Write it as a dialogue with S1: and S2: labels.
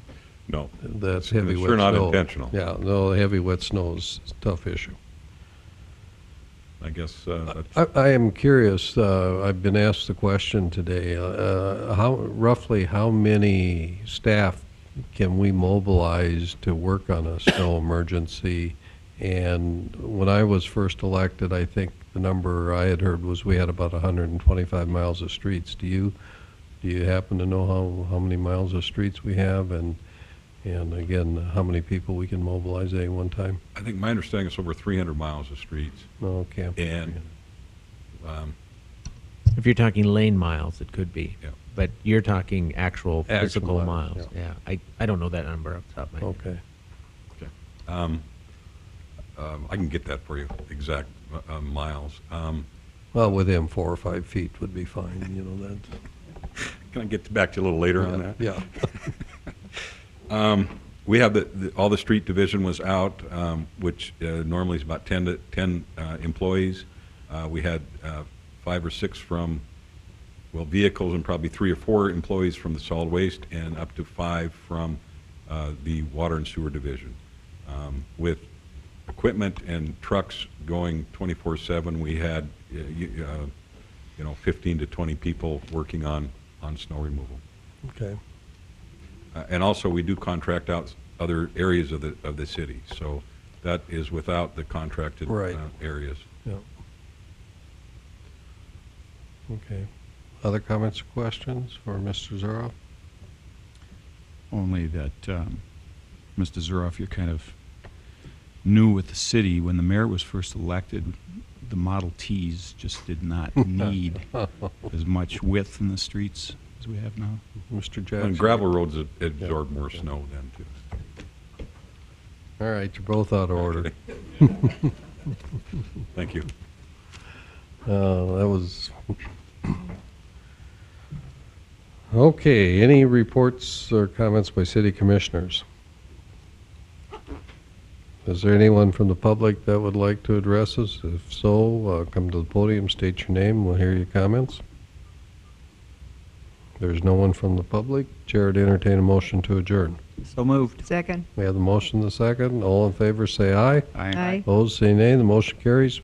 S1: No.
S2: That's
S1: It's
S2: heavy wet snow.
S1: sure not intentional.
S2: Yeah, no, heavy wet snow's a tough issue.
S1: I guess, uh, that's-
S2: I, I am curious, uh, I've been asked the question today, uh, how, roughly how many staff can we mobilize to work on a snow emergency? And when I was first elected, I think the number I had heard was we had about hundred and twenty-five miles of streets. Do you, do you happen to know how, how many miles of streets we have and, and again, how many people we can mobilize at any one time? Oh,
S1: I think my understanding is over 300 miles of streets.
S2: No, can't. be.
S1: And um,
S3: If you're talking lane miles, it could be.
S1: Yeah.
S3: But you're talking actual
S2: Actual
S3: physical
S2: miles,
S3: miles. Yeah. I, I don't know that number off the top of my head.
S2: Okay.
S1: um, I can get that for you, exact uh, uh, miles. Um,
S2: Well, within four or five feet would be fine, you know, that.
S1: Can I get back to you a little later on that?
S2: Yeah.
S1: We have the- the, all the street division was out, um, which uh, normally is about 10 to, 10 uh, employees. Uh, We had uh, five or six from, well, vehicles and probably three or four employees from the solid waste and up to five from uh, the water and sewer division. Um, With equipment and trucks going 24/7, we had, uh, you uh, you know, 15 to 20 people working on, on snow removal.
S2: Okay.
S1: Uh, And also, we do contract out other areas of the, of the city, so that is without the contracted
S2: Right.
S1: uh, areas.
S2: Yeah. Okay. Other comments or questions for Mr. Zorro?
S4: Only that, um, Mr. Zuroff, you're kind of new with the city. When the mayor was first elected, the Model Ts just did not need as much width in the streets as we have now.
S2: Mr. Jackson?
S1: And gravel roads ab- absorb more snow then, too.
S2: All right, you're both out of order.
S1: Thank you.
S2: Uh, that was. Okay, any reports or comments by city commissioners? Is there anyone from the public that would like to address us? If so, uh, come to the podium, state your name, we'll hear your comments. There's no one from the public. Chair would entertain a motion to adjourn.
S4: So moved.
S5: Second.
S2: We have the motion, the second. All in favor, say aye.
S4: Aye.
S5: Aye.
S2: Opposed, say nay. The motion carries.